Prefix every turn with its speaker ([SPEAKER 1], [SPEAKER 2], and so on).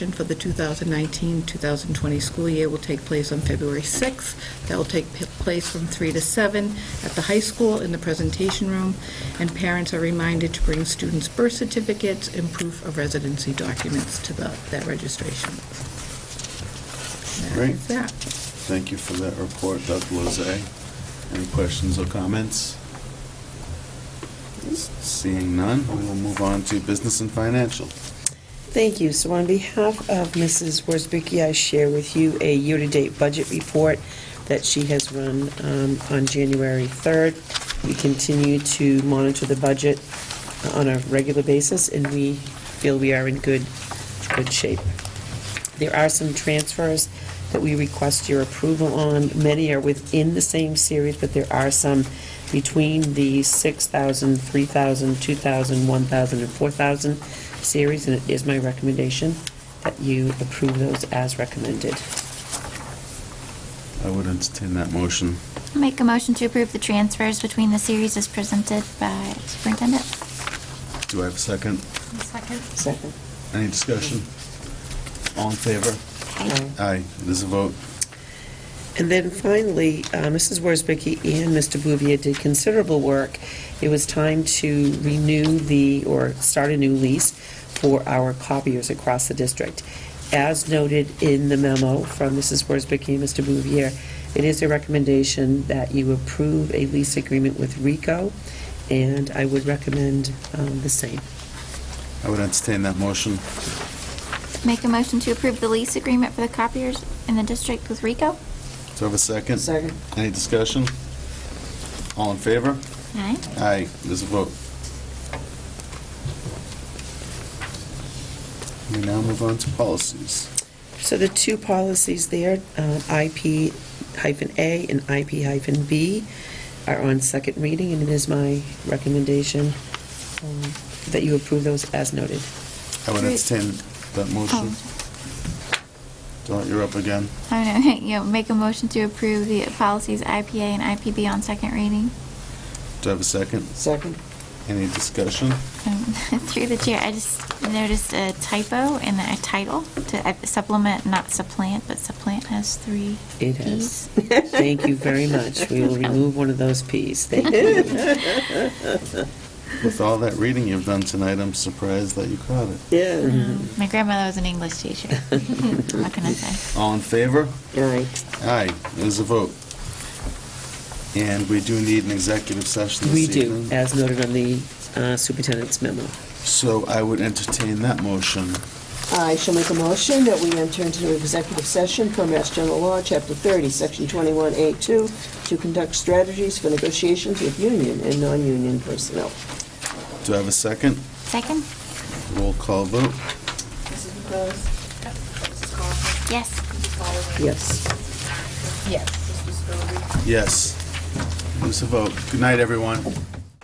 [SPEAKER 1] for the 2019-2020 school year will take place on February 6th. That will take p- place from 3 to 7 at the high school in the presentation room, and parents are reminded to bring students' birth certificates and proof of residency documents to the- that registration. That
[SPEAKER 2] Great.
[SPEAKER 1] is that.
[SPEAKER 2] Thank you for that report, Dr. Lozay. Any questions or comments? Seeing none, we will move on to business and financial.
[SPEAKER 3] Thank you. So on behalf of Mrs. Worsbicky, I share with you a year-to-date budget report that she has run um, on January 3rd. We continue to monitor the budget uh, on a regular basis, and we feel we are in good, good shape. There are some transfers that we request your approval on. Many are within the same series, but there are some between the 6,000, 3,000, 2,000, 1,000, and 4,000 series, and it is my recommendation that you approve those as recommended.
[SPEAKER 2] I would entertain that motion.
[SPEAKER 4] Make a motion to approve the transfers between the series as presented by superintendent.
[SPEAKER 2] Do I have a second?
[SPEAKER 4] Second.
[SPEAKER 3] Second.
[SPEAKER 2] Any discussion? All in favor? Aye, it is a vote.
[SPEAKER 3] And then finally, uh, Mrs. Worsbicky and Mr. Bouvier did considerable work. It was time to renew the, or start a new lease for our copiers across the district. As noted in the memo from Mrs. Worsbicky and Mr. Bouvier, it is a recommendation that you approve a lease agreement with RICO, and I would recommend um, the same.
[SPEAKER 2] I would entertain that motion.
[SPEAKER 4] Make a motion to approve the lease agreement for the copiers in the district with Rico.
[SPEAKER 2] Do I have a second? Any discussion? All in favor?
[SPEAKER 4] Aye.
[SPEAKER 2] Aye, it is a vote. We now move on to policies.
[SPEAKER 3] So the two policies there, um, IP hyphen A and IP hyphen B, are on second reading, and it is my recommendation um, that you approve those as noted.
[SPEAKER 2] I would entertain that motion.
[SPEAKER 4] Oh.
[SPEAKER 2] Don't, you're up again.
[SPEAKER 4] I don't know, you know, make a motion to approve the policies IPA and IPB on second reading.
[SPEAKER 2] Do I have a second?
[SPEAKER 3] Second.
[SPEAKER 2] Any discussion?
[SPEAKER 4] Um, Through the chair, I just noticed a typo in the title to uh, supplement, not supplant, but supplant has three
[SPEAKER 3] It has.
[SPEAKER 4] Ps.
[SPEAKER 3] Thank you very much. We will remove one of those Ps. Thank you.
[SPEAKER 2] With all that reading you've done tonight, I'm surprised that you caught it.
[SPEAKER 3] Mm-hmm.
[SPEAKER 5] Yeah.
[SPEAKER 4] Um, My grandmother was an English teacher. What can I say?
[SPEAKER 2] All in favor?
[SPEAKER 3] Right.
[SPEAKER 2] Aye, it is a vote. And we do need an executive session
[SPEAKER 3] We
[SPEAKER 2] this evening.
[SPEAKER 3] do, as noted on the uh, superintendent's memo.
[SPEAKER 2] So I would entertain that motion.
[SPEAKER 5] I shall make a motion that we enter into executive session per Mass General Law, Chapter 30, Section 21A2, to conduct strategies for negotiations with union and non-union personnel.
[SPEAKER 2] Do I have a second?
[SPEAKER 4] Second?
[SPEAKER 2] Roll call vote.
[SPEAKER 6] Mrs. McClellan? Mrs. Coughlin?
[SPEAKER 4] Yes.
[SPEAKER 6] Mrs. Holloway?
[SPEAKER 5] Yes.
[SPEAKER 6] Mr. Scobie?
[SPEAKER 2] Yes. It is a vote. Good night, everyone.